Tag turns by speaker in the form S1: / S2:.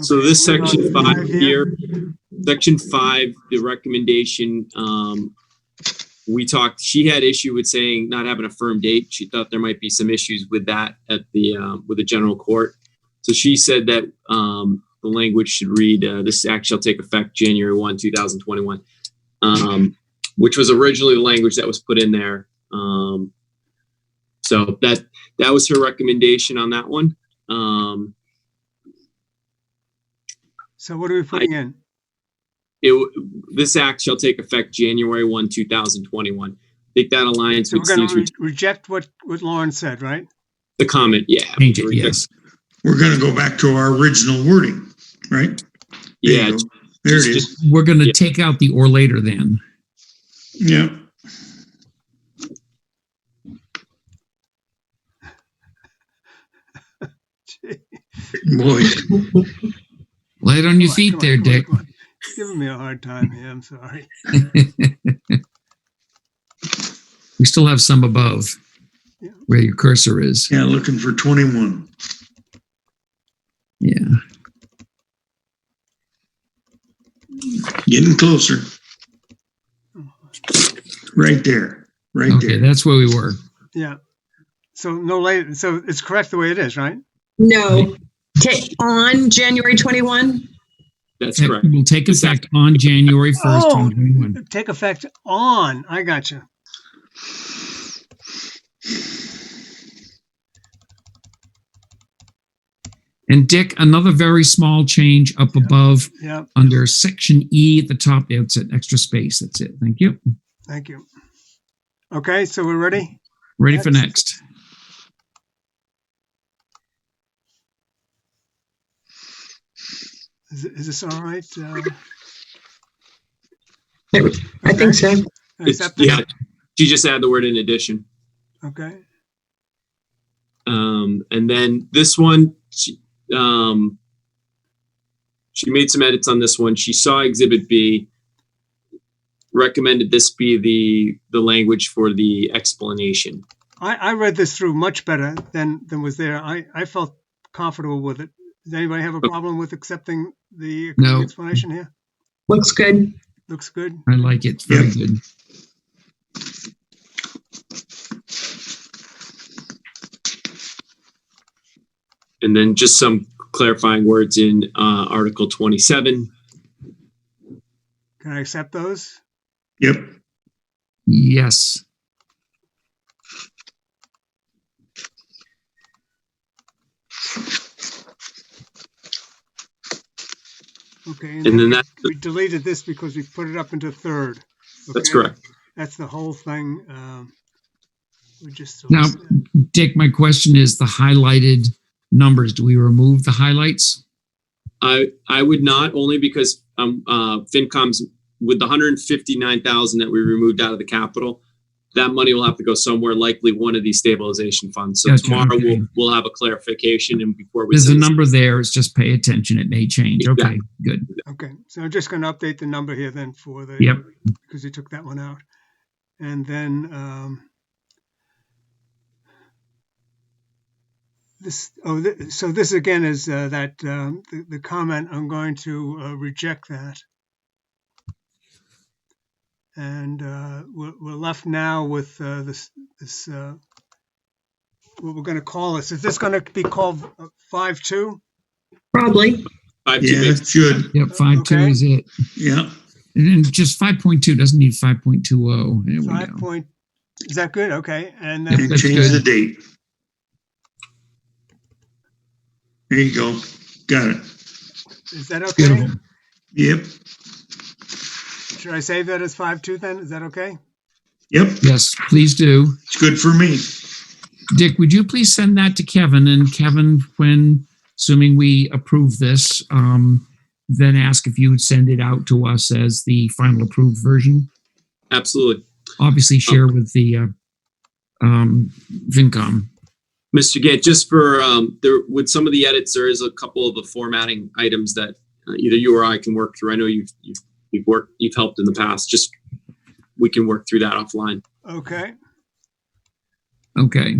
S1: So this
S2: Okay, we're
S1: section
S2: on
S1: five
S2: five
S1: here, section five, the recommendation, um, we talked, she had issue with saying not having a firm date. She thought there might be some issues with that at the, uh, with the general court. So she said that, um, the language should read, uh, this act shall take effect January one, two thousand twenty-one. Um, which was originally the language that was put in there. Um, so that, that was her recommendation on that one. Um,
S2: So what are we putting in?
S1: it, w- this act shall take effect January 1, 2021. I think that aligns
S2: So
S1: with
S2: we're going
S1: Steve's re-
S2: to reject what, what Lauren said, right?
S1: the comment, yeah.
S3: Change it,
S1: Re-
S3: yes.
S4: We're gonna go back to our original wording, right? There you
S1: Yeah,
S4: go. There it
S1: just-
S4: is.
S3: We're going
S1: Yeah.
S3: to take out the or later then.
S4: Yeah.
S2: Gee,
S4: Boy,
S3: Light on your
S2: come on,
S3: feet
S2: come on,
S3: there,
S2: come on,
S3: Dick.
S2: come on. You're Giving me a hard time here, I'm sorry.
S3: We still have some above
S2: Yeah.
S3: where your cursor is.
S4: yeah, looking for twenty-one.
S3: Yeah.
S4: Getting closer. Right there, right
S3: Okay,
S4: there.
S3: that's where we were.
S2: Yeah. So no later, so it's correct the way it is, right?
S5: No, Ta- on January 21?
S1: that's
S3: It
S1: correct.
S3: will take effect on January 1st.
S2: Oh.
S3: 2021.
S2: Take effect on, I got you.
S3: And Dick, another very small change up above
S2: Yeah,
S3: under section E at the top. It's an extra space. That's it. Thank you.
S2: thank you. Okay, so we're ready?
S3: Ready for next?
S2: Is, is this all right? Uh,
S5: I think so.
S2: is
S1: It's-
S2: that the-
S1: Yeah, she just added the word in addition.
S2: Okay,
S1: Um, and then this one, she, um, she made some edits on this one. She saw Exhibit B, recommended this be the, the language for the explanation.
S2: I, I read this through much better than, than was there. I, I felt comfortable with it. Does anybody have a problem with accepting the
S3: No.
S2: explanation here?
S5: Looks good.
S2: Looks good.
S3: I like it. Very good.
S1: And then just some clarifying words in, uh, Article 27.
S2: Can I accept those?
S4: Yep,
S3: Yes.
S2: Okay,
S1: And
S2: and
S1: then
S2: then
S1: that,
S2: we deleted this because we put it up into third.
S1: that's
S2: okay?
S1: correct.
S2: That's the whole thing. um, We just.
S3: Now-
S2: delete that.
S3: Dick, my question is the highlighted numbers. Do we remove the highlights?
S1: I, I would not, only because, um, uh, FinCom's, with the hundred and fifty-nine thousand that we removed out of the capital, that money will have to go somewhere, likely one of these stabilization funds. So
S3: Gotcha,
S1: tomorrow
S3: okay.
S1: we'll, we'll have a clarification and before we.
S3: There's a
S1: send this-
S3: number there. It's just pay attention. It may change. Okay, good.
S2: Okay, so I'm just going to update the number here then for the.
S3: Yep.
S2: Because you took that one out. And then um, this, oh, th- so this again is uh, that, um, the the comment, I'm going to uh, reject that. And uh, we're we're left now with uh, this, this, uh, what we're going to call this. Is this going to be called 5-2?
S5: Probably.
S1: Five, two,
S4: yeah,
S1: eight.
S4: it should,
S3: Yep, five two
S2: Okay.
S3: is it.
S4: yeah.
S3: And then just five point two doesn't need five point two oh. There we
S2: Five
S3: go.
S2: point, is that good? Okay, and then,
S4: And
S3: That's
S4: change the
S3: good.
S4: date. There you go. Got it.
S2: is that okay?
S3: Beautiful.
S4: Yep,
S2: Should I save that as five two then? Is that okay?
S4: yep.
S3: Yes, please do.
S4: It's good for me.
S3: Dick, would you please send that to Kevin? And Kevin, when assuming we approve this, um, then ask if you would send it out to us as the final approved version.
S1: Absolutely.
S3: Obviously, share with the uh, um, VinCom.
S1: Mr. Gant, just for, um, there, with some of the edits, there is a couple of the formatting items that uh, either you or I can work through. I know you've, you've, you've worked, you've helped in the past, just, we can work through that offline.
S2: Okay.
S3: Okay.